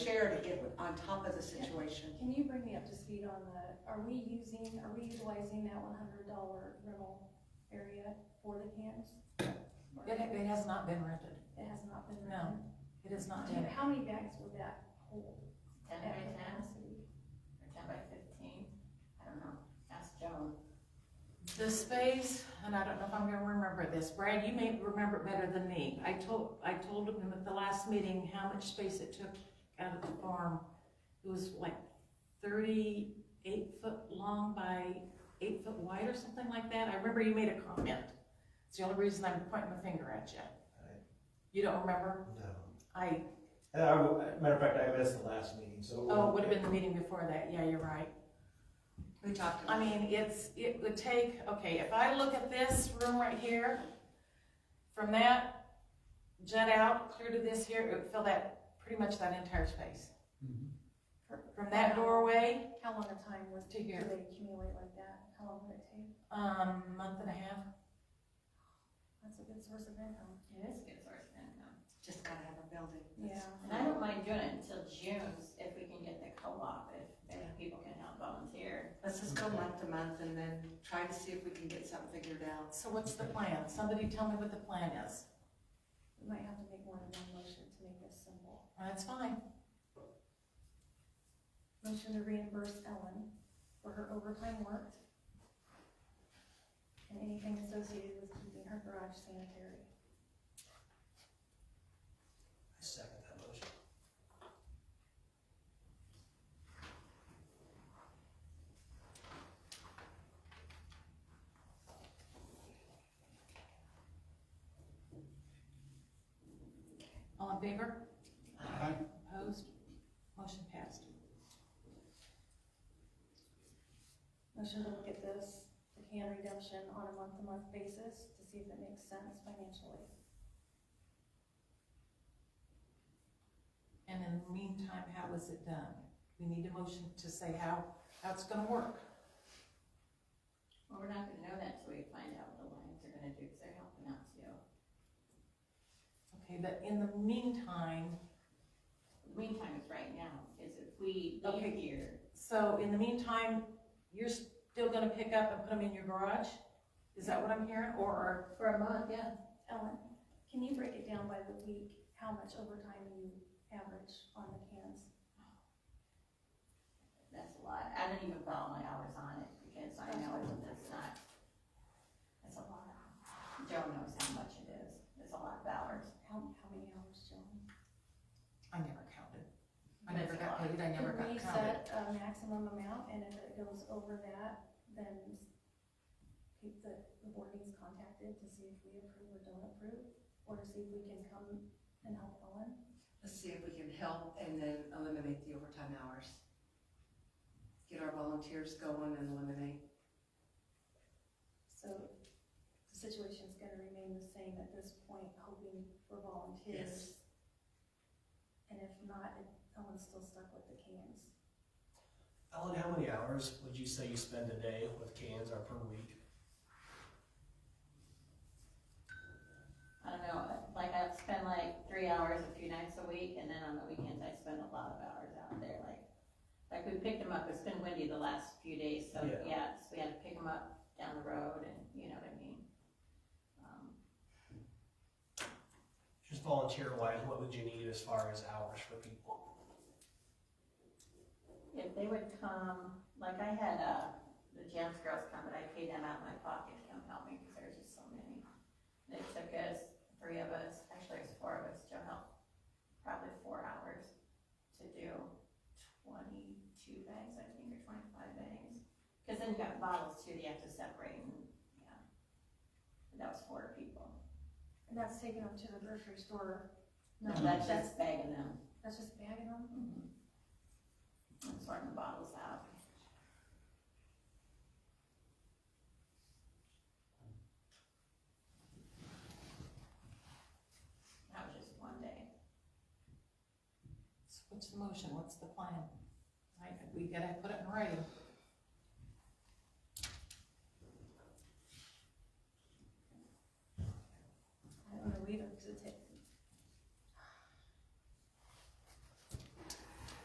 there to get on top of the situation. Can you bring me up to speed on the, are we using, are we utilizing that one hundred dollar rental area for the camps? It, it has not been rented. It has not been No, rented? It is not Do yet. you- How many bags would that hold? Ten at by ten, capacity? or ten by fifteen, I don't know, ask Joan. The space, and I don't know if I'm gonna remember this, Brad, you may remember it better than me. I told, I told him at the last meeting how much space it took out of the farm. It was like thirty-eight foot long by eight foot wide or something like that. I remember you made a comment. It's the only reason I'm pointing my finger at you. You don't remember? No. I, And I w- matter of fact, I missed the last meeting, so. oh, it would have been the meeting before that. Yeah, you're right. We talked I about, mean, it's, it would take, okay, if I look at this room right here, from that jut out clear to this here, it would fill that, pretty much that entire space. From that doorway How long a time would, To do they here. accumulate like that? How long would it take? um, month and a half. That's a good source of income. It is a good source of income. just gotta have a building. Yeah. And I don't mind doing it until June, if we can get the co-op, if, if people can help volunteer. Let's just go month to month and then try to see if we can get something figured out. So what's the plan? Somebody tell me what the plan is. We might have to make more than one motion to make this simple. That's fine. Motion to reimburse Ellen for her overtime worked and anything associated with keeping her garage sanitary. I second that motion. All in favor? Opposed? Motion passed. Motion to look at this, the can redemption on a month-to-month basis to see if it makes sense financially. And in the meantime, how is it done? We need a motion to say how, how it's gonna work. Well, we're not gonna know that till we find out what the Lions are gonna do, because they're helping out too. Okay, but in the meantime, The Meantime is right now, because if we leave Okay. here, So in the meantime, you're still gonna pick up and put them in your garage? Is that what I'm hearing, or? for a month, yeah, Ellen, can you break it down by the week, how much overtime you average on the cans? that's a lot. I don't even put all my hours on it, because I know that's not, that's a lot. Joan knows how much it is, it's a lot of hours. How, how many hours, Joan? I never counted. I But never it's got a lot. paid, I never Can got we set counted. a maximum amount, and if it goes over that, then keep the, the board needs contacted to see if we approve or don't approve, or to see if we can come and help Ellen? Let's see if we can help and then eliminate the overtime hours. Get our volunteers going and eliminate. So the situation's gonna remain the same at this point, hoping for volunteers. And if not, Ellen's still stuck with the cans. Alan, how many hours would you say you spend a day with cans or per week? I don't know, like I've spent like three hours a few nights a week, and then on the weekends I spend a lot of hours out there, like, like we picked them up, it's been windy the last few days, so, Yeah. yeah, so we had to pick them up down the road, and, you know what I mean? Um, Just volunteer wise, what would you need as far as hours for people? If they would come, like I had, uh, the Jams girls come, but I paid them out of my pocket to come help me, because there's just so many. They took us, three of us, actually it was four of us, to help, probably four hours to do twenty-two bags, I think, or twenty-five bags. Because then you got bottles too, that you have to separate, and, yeah. That was four people. And that's taking them to the grocery store, No, that's just bagging them. that's just bagging them? And sorting the bottles out. That was just one day. So What's the motion, what's the plan? Right, we gotta put it in writing.